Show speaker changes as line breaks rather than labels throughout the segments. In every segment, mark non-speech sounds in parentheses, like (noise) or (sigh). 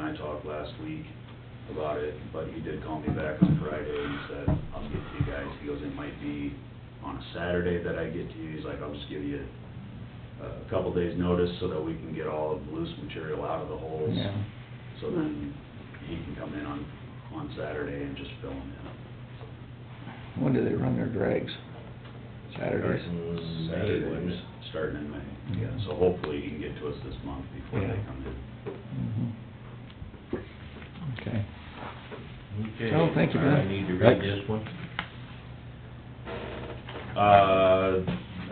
I talked last week about it, but he did call me back on Friday and said, I'll get to you guys. He goes, it might be on a Saturday that I get to you. He's like, I'll just give you a couple days' notice so that we can get all of the loose material out of the holes.
Yeah.
So then he can come in on, on Saturday and just fill them in.
When do they run their drags? Saturdays?
Starting
Saturdays.
May, Starting in May, yeah,
Mhm.
so hopefully you can get to us this month before they
Yeah.
come in.
Mhm. Okay.
Okay.
Oh, thank you, Ben.
I need to read
Thanks.
this one.
Uh,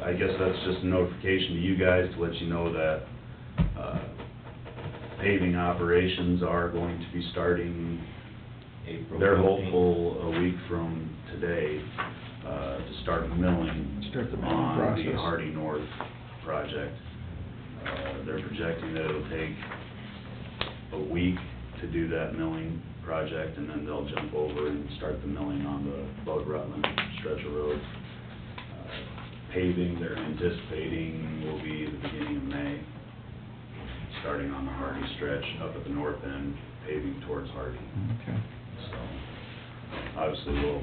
I guess that's just a notification to you guys to let you know that, uh, paving operations are going to be starting
April
They're
15th.
hopeful a week from today, uh, to start milling.
Start the milling
On the
process.
Hardy North project. Uh, they're projecting that it'll take a week to do that milling project, and then they'll jump over and start the milling on the Bud Rutland stretch of road. Uh, Paving, they're anticipating will be the beginning of May, starting on the Hardy stretch up at the north end, paving towards Hardy.
Okay.
So, obviously, we'll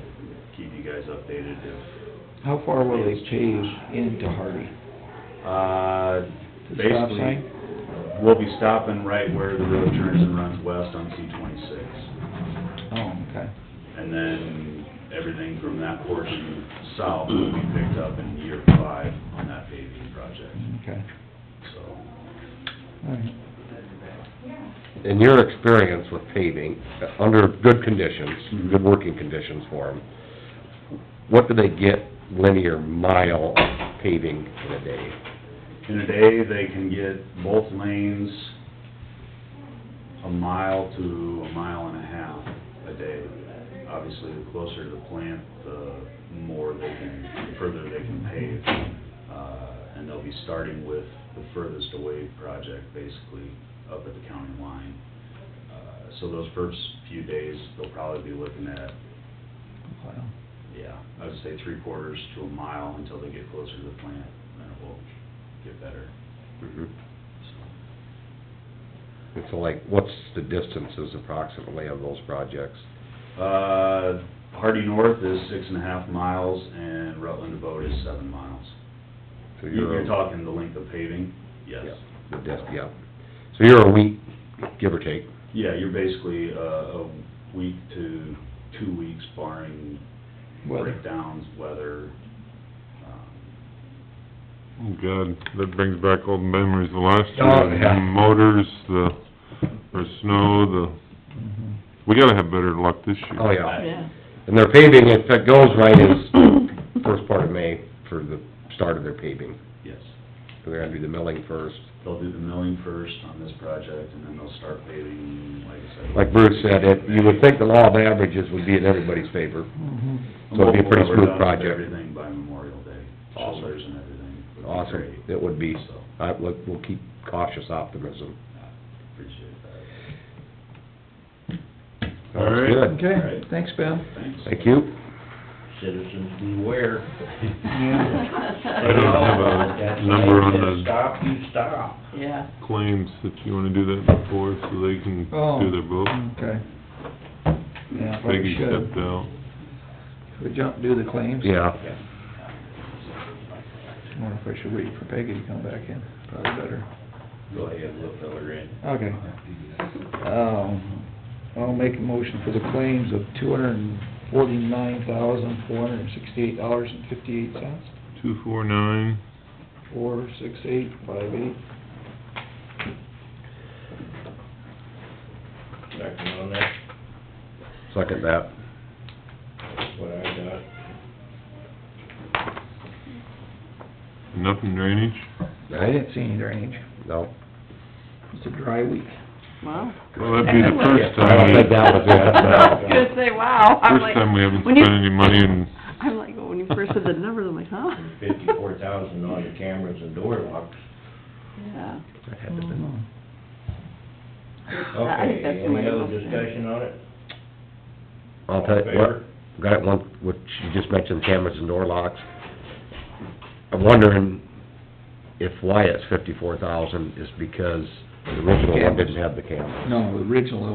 keep you guys updated if,
How far will they pave into Hardy?
uh,
The stop
basically,
sign?
we'll be stopping right where the road turns and runs west on C twenty-six.
Oh, okay.
And then, everything from that portion south will be picked up in year five on that paving project,
Okay.
so.
All right.
In your experience with paving, uh, under good conditions, good working conditions for them, what do they get linear mile of paving in a day?
In a day, they can get both lanes a mile to a mile and a half a day. Obviously, the closer to the plant, the more they can, the further they can pave. Uh, and they'll be starting with the furthest away project, basically, up at the county line. Uh, So those first few days, they'll probably be looking at,
Wow.
yeah, I would say three quarters to a mile until they get closer to the plant, then it will get better, so.
And so like, what's the distances approximately of those projects?
Uh, Hardy North is six and a half miles, and Rutland Abode is seven miles.
So
You-
you're
You're talking the length of paving?
Yeah,
Yes.
The dis, yeah. So you're a week, give or take,
Yeah, you're basically, uh, a week to two weeks barring
Weather.
breakdowns, weather. um,
Oh, God, that brings back old memories of last
Oh,
year,
yeah.
the motors, the, or snow, the,
Mhm.
we gotta have better luck this year.
oh, yeah.
I-
And their paving, if it goes right, is
(laughs)
first part of May for the start of their paving.
Yes.
So they're gonna do the milling first.
They'll do the milling first on this project, and then they'll start paving, like I said.
Like Bruce said, it, you would think the law of averages would be in everybody's favor.
Mhm.
so it'd be a pretty
Hopefully we're
smooth
done with
project.
Everything by Memorial Day,
Awesome.
shoulders and everything. would be great.
Awesome, it would be.
So,
I, we'll, we'll keep cautious optimism.
I appreciate that.
Sounds
All right.
good.
Okay, thanks, Ben.
Thanks.
Thank you.
Citizens beware.
(laughs) I don't have a number on the
Stop, you stop.
Yeah,
claims, if you wanna do that before, so they can
Oh.
do their vote.
Okay. Yeah, probably
Peggy
should.
stepped out.
Should we jump, do the claims?
Yeah.
I wonder if I should wait for Peggy to come back in. Probably better.
Go ahead, we'll fill her in.
Okay. Um, I'll make a motion for the claims of two hundred and forty-nine thousand, four hundred and sixty-eight dollars and fifty-eight cents.
Two, four, nine,
Four, six, eight, five, eight.
Second on that,
Second that.
that's what I got.
nothing drainage,
I didn't see any drainage.
No.
It's a dry week.
wow.
well, that'd be the
I
first
don't
time,
think that was
(laughs) I was
it,
gonna say, wow. I'm
first
like-
time we haven't
when you-
spent any money in
I'm like, when you first said the numbers, I'm like, huh?
Fifty-four thousand on the cameras and door locks.
Yeah.
That had to been.
I think
Okay,
that's the way
any
it
other
was.
discussion on it?
I'll tell you, what, got one, which you just mentioned, cameras and door locks. I'm wondering if why it's fifty-four thousand is because the original one didn't have the camera.
No, the original